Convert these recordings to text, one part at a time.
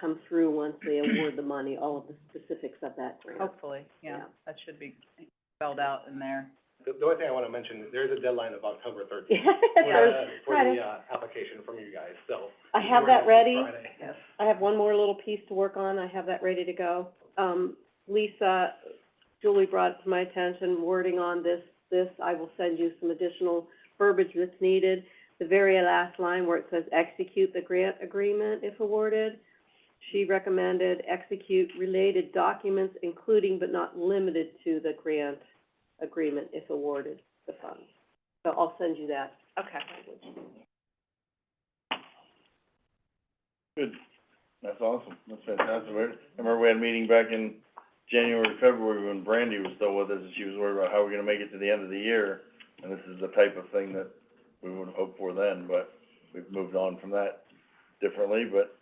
come through once they award the money, all of the specifics of that grant. Hopefully, yeah, Yeah. that should be spelled out in there. The, the only thing I wanna mention, there is a deadline of October thirteenth Yeah, for there's- the, for Friday. the, uh, application from you guys, so. I if you have were that to- ready. Friday. Yes. I have one more little piece to work on, I have that ready to go. Um, Lisa, Julie brought to my attention wording on this, this, I will send you some additional verbiage that's needed. The very last line where it says execute the grant agreement if awarded, she recommended execute related documents including but not limited to the grant agreement if awarded the funds. So I'll send you that. Okay. Good, that's awesome, that's fantastic, We're- I remember we had a meeting back in January, February, when Brandy was still with us, and she was worried about how we're gonna make it to the end of the year, and this is the type of thing that we would hope for then, but we've moved on from that differently, but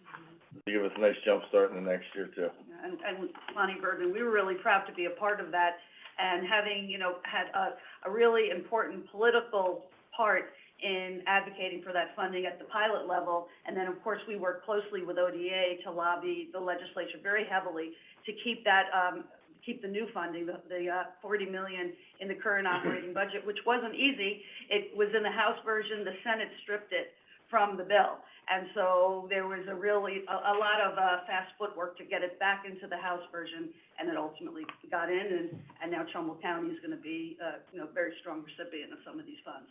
to give us a nice jump start in the next year too. and, and Lonnie Bergman, we were really proud to be a part of that, and having, you know, had a, a really important political part in advocating for that funding at the pilot level, and then, of course, we worked closely with ODA to lobby the legislature very heavily to keep that, um, keep the new funding, the, the, uh, forty million in the current operating budget, which wasn't easy. It was in the House version, the Senate stripped it from the bill. And so there was a really, a, a lot of, uh, fast footwork to get it back into the House version, and it ultimately got in, and, and now Trumbull County is gonna be, uh, you know, a very strong recipient of some of these funds.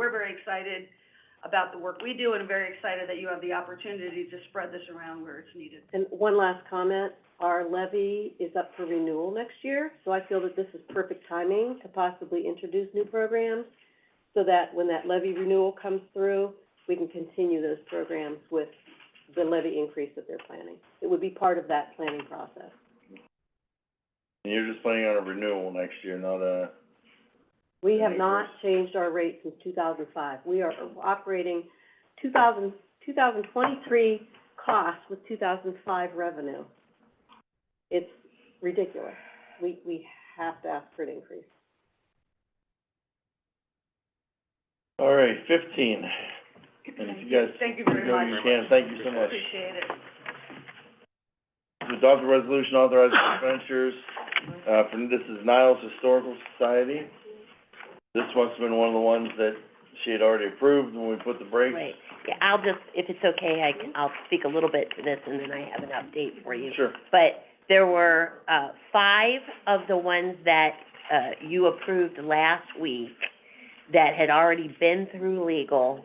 We're very excited about the work we do, and very excited that you have the opportunity to spread this around where it's needed. And one last comment, our levy is up for renewal next year, so I feel that this is perfect timing to possibly introduce new programs so that when that levy renewal comes through, we can continue those programs with the levy increase that they're planning. It would be part of that planning process. And you're just planning on a renewal next year, not a, We have Any not changed our rate since two thousand five. We are operating 2000 2023 costs with two thousand five revenue. It's ridiculous. We, we have to ask for an increase. all right, fifteen, and if you guys. Thank you very go, much. you can. thank you so much. Appreciate it. To adopt a resolution authorizing expenditures, uh, from, this is Niles Historical Society. This must have been one of the ones that she had already approved when we put the brakes. Right, yeah, I'll just, if it's okay, I, can- I'll speak a little bit to this, and then I have an update for you. Sure. But there were, uh, five of the ones that, uh, you approved last week that had already been through legal,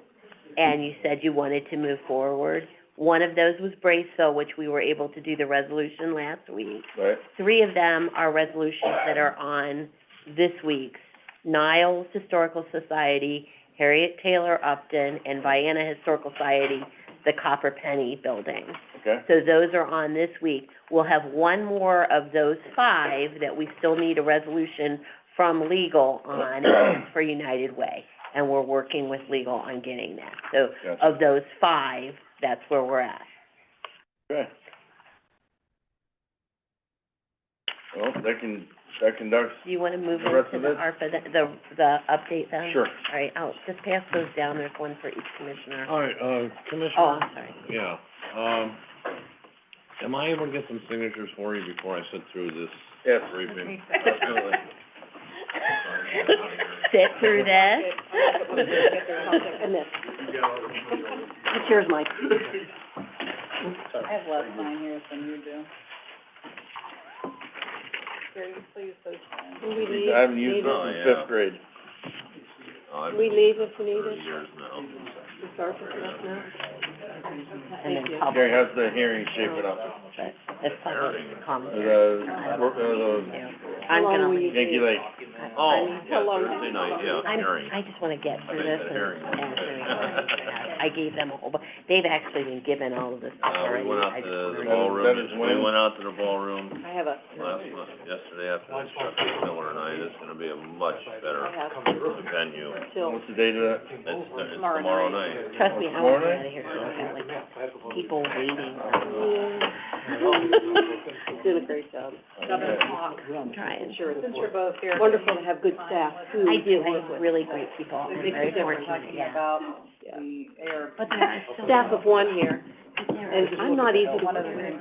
and you said you wanted to move forward. One of those was Braceville, which we were able to do the resolution last week. Right, Three of them are resolutions that are on this week's, Niles Historical Society, Harriet Taylor Upton, and Vienna Historical Society, the Copper Penny Building. okay, So those are on this week. We'll have one more of those five that we still need a resolution from legal on for United Way. And we're working with legal on getting that. So gotcha, of those five, that's where we're at. okay. Well, that can, that conducts, Do you wanna move The rest into of the it? ARPA, the, the, the update then? sure. All right, I'll just pass those down, there's one for each commissioner. All right, uh, Commissioner. Oh, I'm sorry. Yeah, um, am I able to get some signatures for you before I sit through this Yes. briefing? Absolutely. Sit through And this. this, here's Mike. I have less mine here than you do. Gary, please, those things. We leave, I haven't used leave, it Oh, since yeah. fifth grade. Oh, we leave if needed, years now. we start with that now. And then Thank you. public, Gary, how's the hearing shaping up? that's public Uh, commentary. The, uh, I'm How long gonna will the leave. you- Yankee Lake. Oh, How long? Thursday night, yeah, I'm, hearing. I just wanna get through this I and, think the hearing was and good. hearing. I gave them a whole bu- they've actually been given all of this stuff Uh, we already. went out I to just the wanted- That ballroom, is we when- went out to the ballroom I have a, last month, yesterday after the Chuck Miller night, it's gonna be a much I better have venue. till, What's the date of that? It's, it's tomorrow night. Trust me, I Tomorrow wanna get night? out of here, 'cause I've got, like people waiting, he's doing a great job. I'm trying. I'm sure it's wonderful to have good staff who. I do, I have really great people, I'm very fortunate, yeah. About Yeah. the air. But there are still, Staff of one here. but there And I'm not easy to One of the work with.